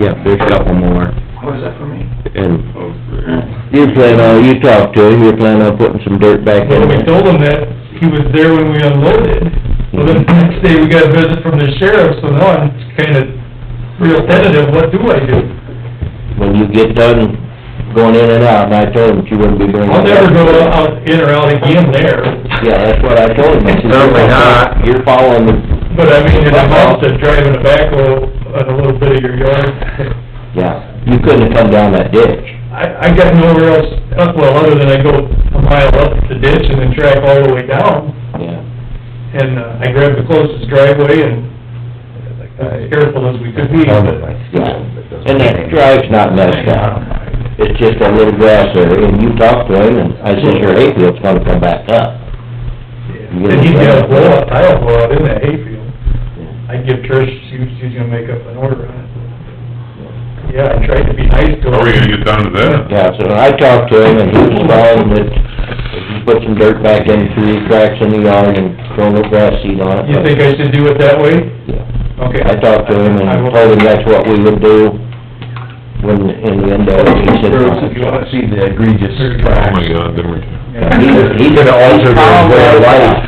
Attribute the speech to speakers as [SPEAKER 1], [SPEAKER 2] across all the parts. [SPEAKER 1] Yep, there's a couple more,
[SPEAKER 2] What is that for me?
[SPEAKER 1] and
[SPEAKER 3] Oh, great.
[SPEAKER 1] you plan on, you talked to him, you're planning on putting some dirt back
[SPEAKER 4] Well,
[SPEAKER 1] in
[SPEAKER 4] we
[SPEAKER 1] there?
[SPEAKER 4] told him that he was there when we unloaded, so then the next day we got a visit from the sheriff, so now I'm kinda real tentative, what do I do?
[SPEAKER 1] When you get done going in and out, and I told him that you wouldn't be doing that.
[SPEAKER 4] I'll never go out, in or out again there,
[SPEAKER 1] Yeah, that's what I told him. I said,
[SPEAKER 3] Certainly not.
[SPEAKER 1] You're following the,
[SPEAKER 4] but I mean, in a month of driving a backhoe on a little bit of your yard,
[SPEAKER 1] yeah, you couldn't have come down that ditch.
[SPEAKER 4] I, I got nowhere else, up well, other than I go a mile up the ditch and then track all the way down,
[SPEAKER 1] Yeah,
[SPEAKER 4] and uh, I grabbed the closest driveway and uh, as careful as we could be, but
[SPEAKER 1] yeah. And that drive's not messed up. It's just a little grass area, and you talked to him, and I said, your hayfield's gonna come back up.
[SPEAKER 4] And he's got a blowout, tile blowout in that hayfield. I'd give Trish, she was, she's gonna make up an order on it. Yeah, I tried to be nice to
[SPEAKER 3] Are we
[SPEAKER 4] her.
[SPEAKER 3] gonna get down to that?
[SPEAKER 1] Yeah, so I talked to him, and he was following that, if you put some dirt back in through the cracks in the yard and throw no grass seed on it.
[SPEAKER 4] You think I should do it that way?
[SPEAKER 1] Yeah.
[SPEAKER 4] Okay.
[SPEAKER 1] I talked to him
[SPEAKER 4] I will-
[SPEAKER 1] and told him that's what we would do when, in the end of it, he said.
[SPEAKER 5] If you wanna see the egregious
[SPEAKER 3] Oh
[SPEAKER 5] cracks.
[SPEAKER 3] my God, then we...
[SPEAKER 1] He, he could alter his way of life.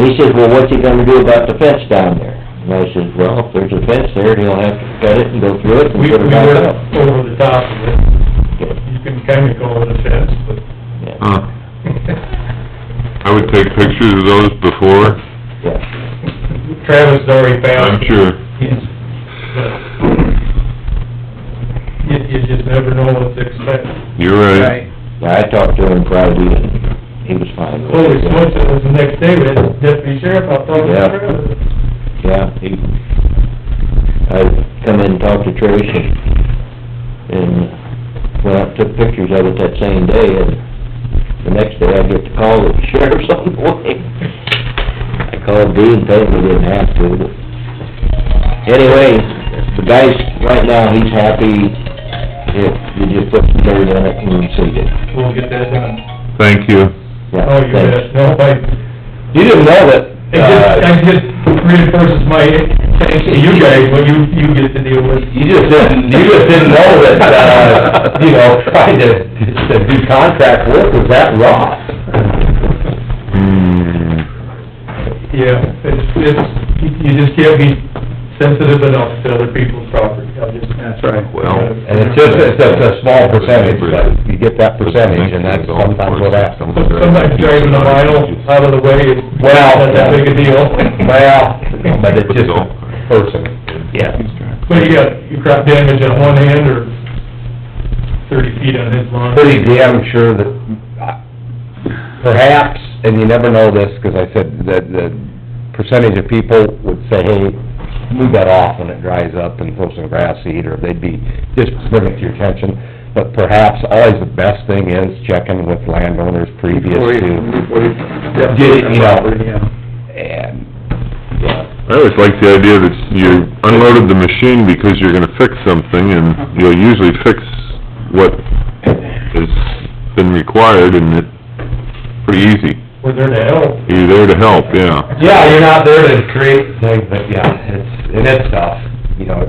[SPEAKER 1] And he says, well, what's he gonna do about the fence down there? And I says, well, if there's a fence there, he'll have to cut it and go through it and
[SPEAKER 4] We, we
[SPEAKER 1] put it back up.
[SPEAKER 4] were over the top of it. You can kinda call it a fence, but.
[SPEAKER 1] Yeah,
[SPEAKER 3] Huh. I would take pictures of those before,
[SPEAKER 1] yeah.
[SPEAKER 4] Travis has already found.
[SPEAKER 3] I'm sure.
[SPEAKER 4] Yes, but You, you just never know what to expect.
[SPEAKER 3] You're right.
[SPEAKER 1] Yeah, I talked to him Friday and he was fine. with
[SPEAKER 4] Holy
[SPEAKER 1] it.
[SPEAKER 4] smokes, it was the next day, we had the deputy sheriff out talking to
[SPEAKER 1] Yeah.
[SPEAKER 4] Travis.
[SPEAKER 1] Yeah, he, I come in and talked to Trish and, and went up, took pictures of it that same day and the next day I get the call that the sheriff's on the way. I called Dean, told him we didn't have to, but anyway, the guy's, right now, he's happy if you just put some dirt in it and seed it.
[SPEAKER 4] We'll get that done.
[SPEAKER 3] Thank you.
[SPEAKER 1] Yeah,
[SPEAKER 4] Oh, you
[SPEAKER 1] thanks.
[SPEAKER 4] bet, no, I,
[SPEAKER 1] You didn't know that,
[SPEAKER 4] it just,
[SPEAKER 1] uh,
[SPEAKER 4] I just reinforces my thanks to you guys, when you, you get to deal with.
[SPEAKER 5] You just didn't, you just didn't know that, uh, you know, trying to, to do contract work was that rough.
[SPEAKER 3] Hmm.
[SPEAKER 4] Yeah, it's, it's, you just can't be sensitive enough to other people's property, I just.
[SPEAKER 5] That's right.
[SPEAKER 3] Well-
[SPEAKER 5] And it's just, it's just a small percentage, but you get that percentage, and that's sometimes what happens.
[SPEAKER 4] Sometimes driving a mile out of the way is
[SPEAKER 5] Well-
[SPEAKER 4] not that big a deal.
[SPEAKER 5] Well, but it's just a person.
[SPEAKER 1] yeah.
[SPEAKER 4] But you got, you crop damage on one hand or thirty feet on his lawn.
[SPEAKER 5] pretty damn sure that, uh, perhaps, and you never know this, 'cause I said that the percentage of people would say, hey, move that off when it dries up and throw some grass seed, or they'd be, just bring it to your attention. But perhaps always the best thing is checking with landowners previous to, Get it, you know. and,
[SPEAKER 3] I always like the idea that you unloaded the machine because you're gonna fix something, and you'll usually fix what has been required, and it's pretty easy.
[SPEAKER 4] We're there to help.
[SPEAKER 3] You're there to help, yeah.
[SPEAKER 5] yeah, you're not there to create things, but yeah, it's, and it's tough, you know,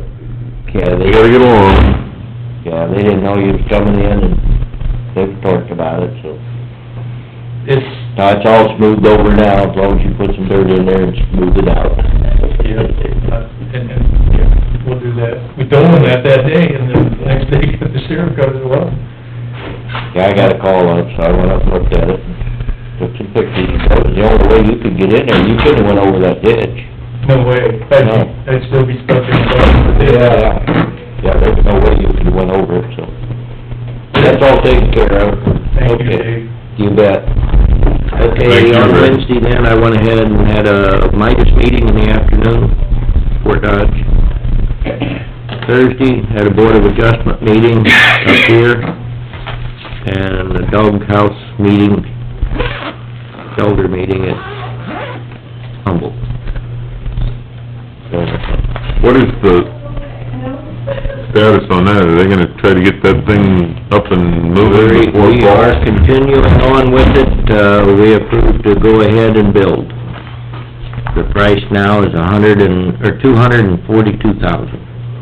[SPEAKER 1] Yeah,
[SPEAKER 3] You
[SPEAKER 1] they,
[SPEAKER 3] gotta get along.
[SPEAKER 1] yeah, they didn't know you was coming in and they've talked about it, so.
[SPEAKER 4] It's,
[SPEAKER 1] Now, it's all smoothed over now, as long as you put some dirt in there and smooth it out.
[SPEAKER 4] yeah, uh, and, and, yeah, we'll do that. We told him that that day and then the next day the sheriff comes, well,
[SPEAKER 1] Yeah, I got a call on it, so I went up and looked at it, took some pictures, that was the only way you could get in there, you couldn't have went over that ditch.
[SPEAKER 4] no way. I'd,
[SPEAKER 1] No.
[SPEAKER 4] I'd still be stuck in the mud.
[SPEAKER 1] Yeah, there was no way you could have went over it, so. That's all taken care of.
[SPEAKER 4] Thank you,
[SPEAKER 1] Okay.
[SPEAKER 4] Dave.
[SPEAKER 1] You bet.
[SPEAKER 3] Thank
[SPEAKER 1] Okay,
[SPEAKER 3] you,
[SPEAKER 1] on
[SPEAKER 3] Rick.
[SPEAKER 1] Wednesday then, I went ahead and had a Midas meeting in the afternoon, Fort Dodge. Thursday, had a Board of Adjustment meeting up here, and a doghouse meeting, elder meeting at Humboldt. So,
[SPEAKER 3] What is the status on that? Are they gonna try to get that thing up and
[SPEAKER 1] We
[SPEAKER 3] moving before
[SPEAKER 1] we are
[SPEAKER 3] fall?
[SPEAKER 1] continuing on with it, uh, we approved to go ahead and build. The price now is a hundred and, or two hundred and forty-two thousand.